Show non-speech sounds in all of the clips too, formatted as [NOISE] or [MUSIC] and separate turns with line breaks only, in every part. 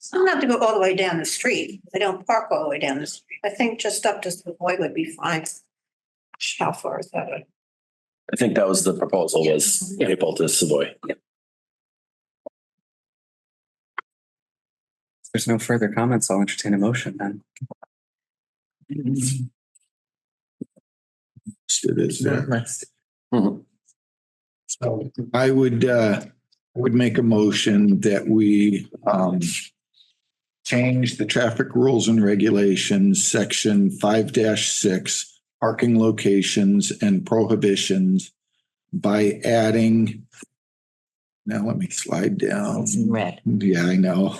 So not to go all the way down the street. They don't park all the way down the street. I think just up to Savoy would be fine. How far is that?
I think that was the proposal was Maple to Savoy.
There's no further comments. I'll entertain a motion then.
It is, yeah.
Mhm.
So I would, uh, I would make a motion that we, um, change the traffic rules and regulations, section five six, parking locations and prohibitions by adding, now let me slide down.
Red,
Yeah, I know.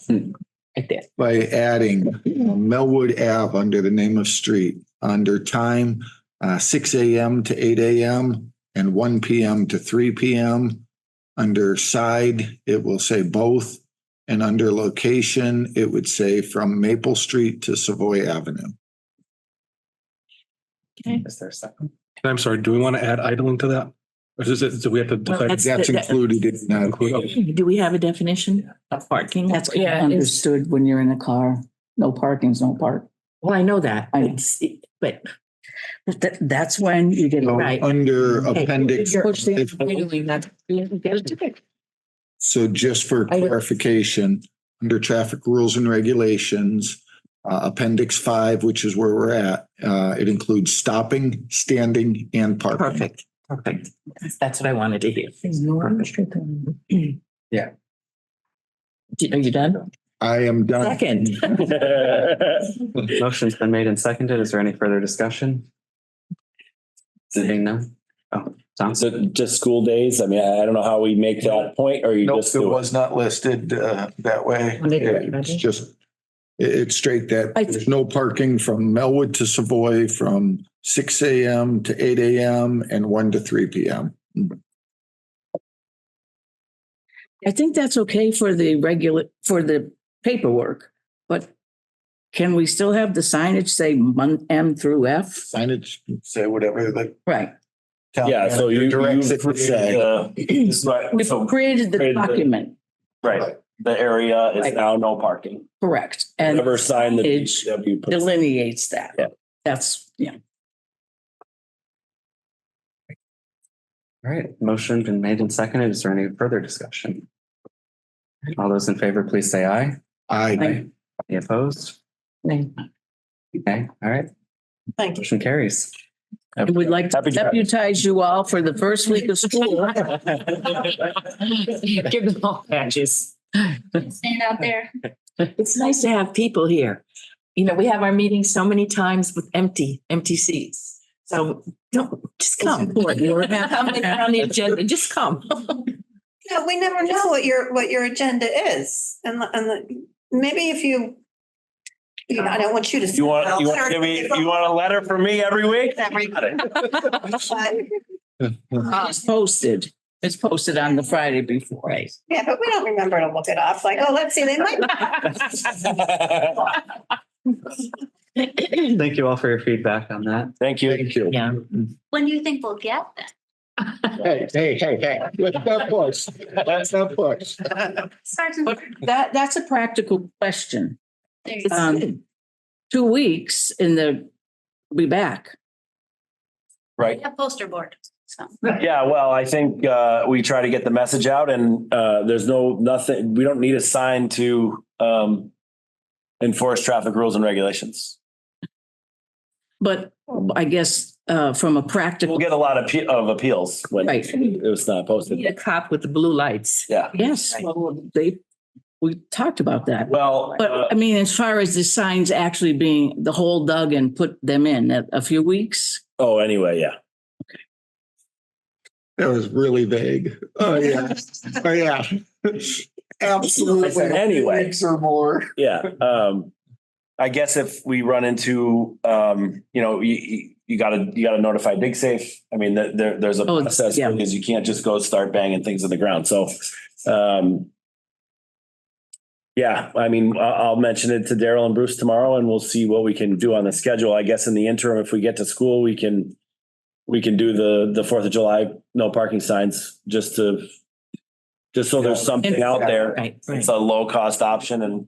[LAUGHS] right there.
by adding uh, Melwood Ave under the name of street, under time uh, six AM to eight AM and one PM to three PM. Under side, it will say both, and under location, it would say from Maple Street to Savoy Avenue.
Is there a second?
And I'm sorry, do we want to add idling to that? Or is it, do we have to decide?
that's-
That's
that-
included in that.
Okay.
Do we have a definition of parking?
That's kind of understood when you're in a car. No parking's no park.
Well, I know that,
I know.
it's, but but that, that's when you get it
So
right.
Under
Okay.
appendix,
Push the-
if-
that's- that's different.
So just for
I-
clarification, under traffic rules and regulations, uh, appendix five, which is where we're at, uh, it includes stopping, standing and parking.
Perfect, perfect. That's what I wanted to hear.
Yeah.
Do you know you're done?
I am done.
Second. [LAUGHS]
Motion's been made and seconded. Is there any further discussion? Seeing none? Oh, Tom?
So just school days? I mean, I I don't know how we make that point or you
Nope,
just
it
do it.
was not listed, uh, that way.
Wanna do it,
It's
ready?
just, it, it's straight that
I-
there's no parking from Melwood to Savoy from six AM to eight AM and one to three PM.
I think that's okay for the regular, for the paperwork, but can we still have the signage say mon- M through F?
Signage, say whatever the
Right.
town
Yeah, so you,
manager
you
directs it to say.
this
We've
so,
created the
created the-
document,
right, the area is
Right.
now no parking.
correct, and
Never sign the
signage
DPW puts-
delineates that.
Yeah.
That's, yeah.
All right, motion been made and seconded. Is there any further discussion? All those in favor, please say aye.
I,
Any opposed?
Nay.
[LAUGHS]
Okay, all right,
Thank you.
motion [CLEARS THROAT] carries.
I would like to
Happy to-
deputize you all for the first week of school.
Give them all badges.
Stand out there.
It's nice to have people here. You know, we have our meetings so many times with empty, empty seats. So don't, just
[LAUGHS]
come. We're on the agenda, just come.
You know, we never know what your, what your agenda is. And, the- and the- maybe if you, you know, I don't want you to.
You want, you want, give me- you want a letter from me every week?
Every-
Got it.
But-
It's posted, it's posted on the Friday before. Right.
[LAUGHS] Yeah, but we don't remember to look it up. Like, oh, let's see, they might.
[LAUGHS]
Thank you all for your feedback on that.
Thank you.
thank you.
Yeah.
When do you think we'll get that?
Hey, hey, hey, hey, let's not push. Let's not push.
Sergeant,
But that, that's a practical question.
there you go.
Um, two weeks in the, be back.
Right.
We have poster board, so.
Yeah, well, I think uh, we try to get the message out and uh, there's no, nothing, we don't need a sign to um, enforce traffic rules and regulations.
But I guess, uh, from a
We'll
practical,
get a lot of, pe- of appeals when
Right.
it was not
Need a
posted.
cop with the blue lights.
Yeah,
yes, well, they, we talked about that.
well, uh,
But I mean, as far as the signs actually being the whole dug and put them in a, a few weeks.
oh, anyway, yeah.
That was really vague.
[LAUGHS]
Oh, yeah. Oh, yeah. [LAUGHS] Absolutely.
Anyway.
Weeks Or more.
[LAUGHS]
Yeah, um, I guess if we run into, um, you know, you- you, you gotta, you gotta notify dig safe. I mean, there- there, there's a
Oh,
process
yeah.
because you can't just go start banging things in the ground. So, um, yeah, I mean, I'll, I'll mention it to Daryl and Bruce tomorrow and we'll see what we can do on the schedule. I guess in the interim, if we get to school, we can, we can do the, the Fourth of July, no parking signs, just to just so there's something out there.
Right, right.
It's a low cost option and